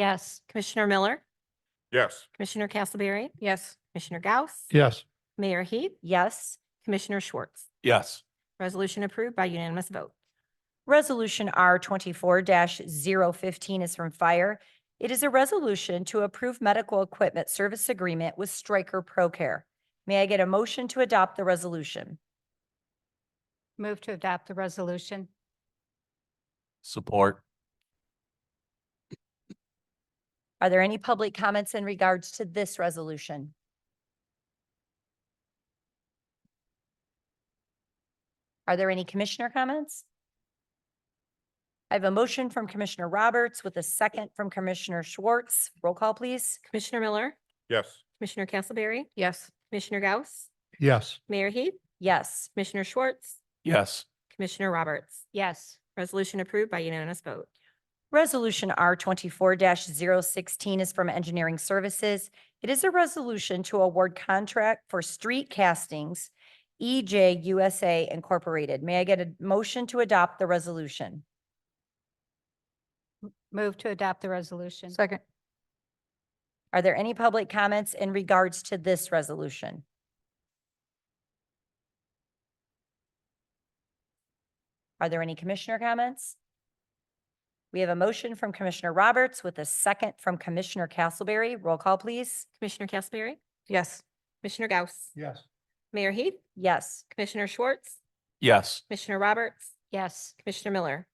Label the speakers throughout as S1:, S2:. S1: Yes.
S2: Commissioner Miller,
S3: Yes.
S2: Commissioner Castleberry,
S1: Yes.
S2: Commissioner Gauss,
S3: Yes.
S2: Mayor Heath,
S1: Yes.
S2: Commissioner Schwartz.
S3: Yes.
S2: Resolution approved by unanimous vote.
S1: Resolution R twenty-four 15 is from Fire. It is a resolution to approve medical equipment service agreement with Stryker Procare. May I get a motion to adopt the resolution?
S4: Move to adopt the resolution.
S3: Support.
S1: Are there any public comments in regards to this resolution? Are there any commissioner comments? I have a motion from Commissioner Roberts with a second from Commissioner Schwartz. Roll call, please.
S2: Commissioner Miller,
S3: Yes.
S2: Commissioner Castleberry,
S4: Yes.
S2: Commissioner Gauss,
S3: Yes.
S2: Mayor Heath,
S1: Yes.
S2: Commissioner Schwartz,
S3: Yes.
S2: Commissioner Roberts.
S4: Yes.
S2: Resolution approved by unanimous vote.
S1: Resolution R twenty-four 16 is from Engineering Services. It is a resolution to award contract for street castings, E EJ USA Incorporated. May I get a motion to adopt the resolution?
S4: Move to adopt the resolution.
S5: Second,
S1: Are there any public comments in regards to this resolution? Are there any commissioner comments? We have a motion from Commissioner Roberts with a second from Commissioner Castleberry. Roll call, please.
S2: Commissioner Castleberry,
S5: yes.
S2: Commissioner Gauss,
S3: Yes.
S2: Mayor Heath,
S1: Yes.
S2: Commissioner Schwartz,
S3: Yes.
S2: Commissioner Roberts,
S4: Yes.
S2: Commissioner Miller.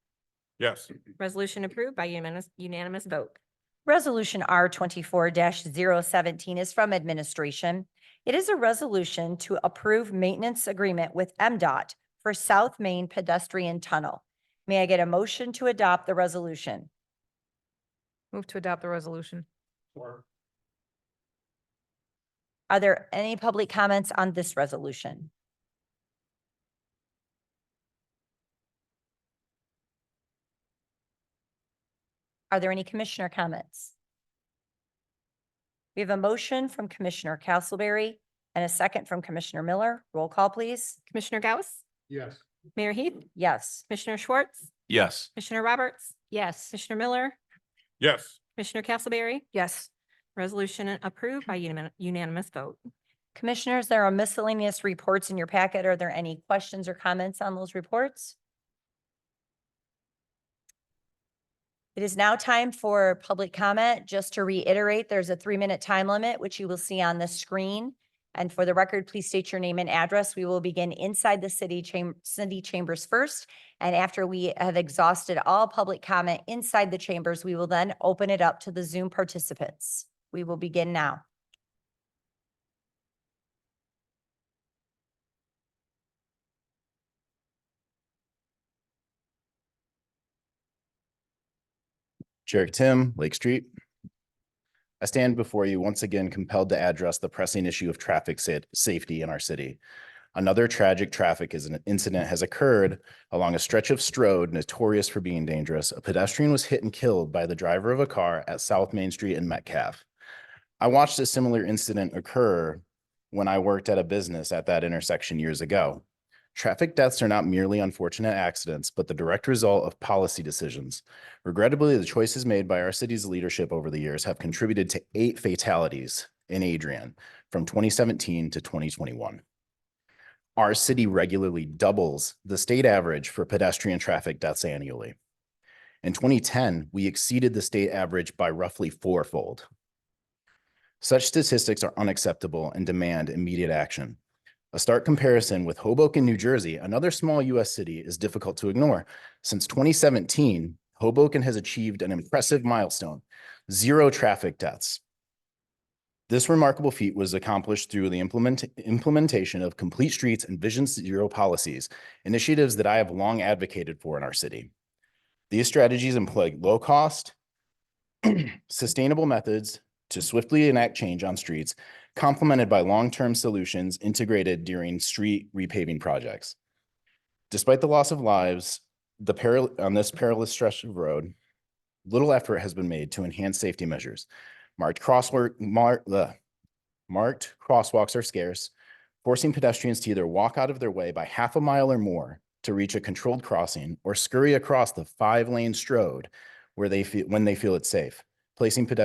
S3: Yes.
S2: Resolution approved by unanimous, unanimous vote.
S1: Resolution R twenty-four 17 is from administration. It is a resolution to approve maintenance agreement with MDOT for South Main Pedestrian Tunnel. May I get a motion to adopt the resolution?
S5: Move to adopt the resolution.
S1: Are there any public comments on this resolution? Are there any commissioner comments? We have a motion from Commissioner Castleberry and a second from Commissioner Miller. Roll call, please.
S2: Commissioner Gauss,
S3: Yes.
S2: Mayor Heath,
S1: Yes.
S2: Commissioner Schwartz,
S3: Yes.
S2: Commissioner Roberts,
S4: Yes.
S2: Commissioner Miller,
S3: Yes.
S2: Commissioner Castleberry,
S5: Yes.
S2: resolution approved by unanimous- unanimous vote.
S1: Commissioners, there are miscellaneous reports in your packet. Are there any questions or comments on those reports? It is now time for public comment. Just to reiterate, there's a three-minute time limit, which you will see on the screen. And for the record, please state your name and address. We will begin inside the city chamber, city chambers first. And after we have exhausted all public comment inside the chambers, we will then open it up to the Zoom participants. We will begin now.
S6: Jarek Tim, Lake Street. I stand before you once again compelled to address the pressing issue of traffic sa- safety in our city. Another tragic traffic is- incident has occurred along a stretch of Strode notorious for being dangerous. A pedestrian was hit and killed by the driver of a car at South Main Street in Metcalf. I watched a similar incident occur when I worked at a business at that intersection years ago. Traffic deaths are not merely unfortunate accidents, but the direct result of policy decisions. Regrettably, the choices made by our city's leadership over the years have contributed to eight fatalities in Adrian from 2017 to 2021. Our city regularly doubles the state average for pedestrian traffic deaths annually. In 2010, we exceeded the state average by roughly fourfold. Such statistics are unacceptable and demand immediate action. A stark comparison with Hoboken, New Jersey, another small US city, is difficult to ignore. Since 2017, Hoboken has achieved an impressive milestone, zero traffic deaths. This remarkable feat was accomplished through the implement- implementation of Complete Streets and Vision Zero policies, initiatives that I have long advocated for in our city. These strategies employ low-cost, sustainable methods to swiftly enact change on streets, complemented by long-term solutions integrated during street repaving projects. Despite the loss of lives, the peril on this perilous stretch of road, little effort has been made to enhance safety measures. Marked crosswalk, mar- bleh. marked crosswalks are scarce, forcing pedestrians to either walk out of their way by half a mile or more to reach a controlled crossing or scurry across the five-lane strode where they feel, when they feel it's safe. placing pedestrians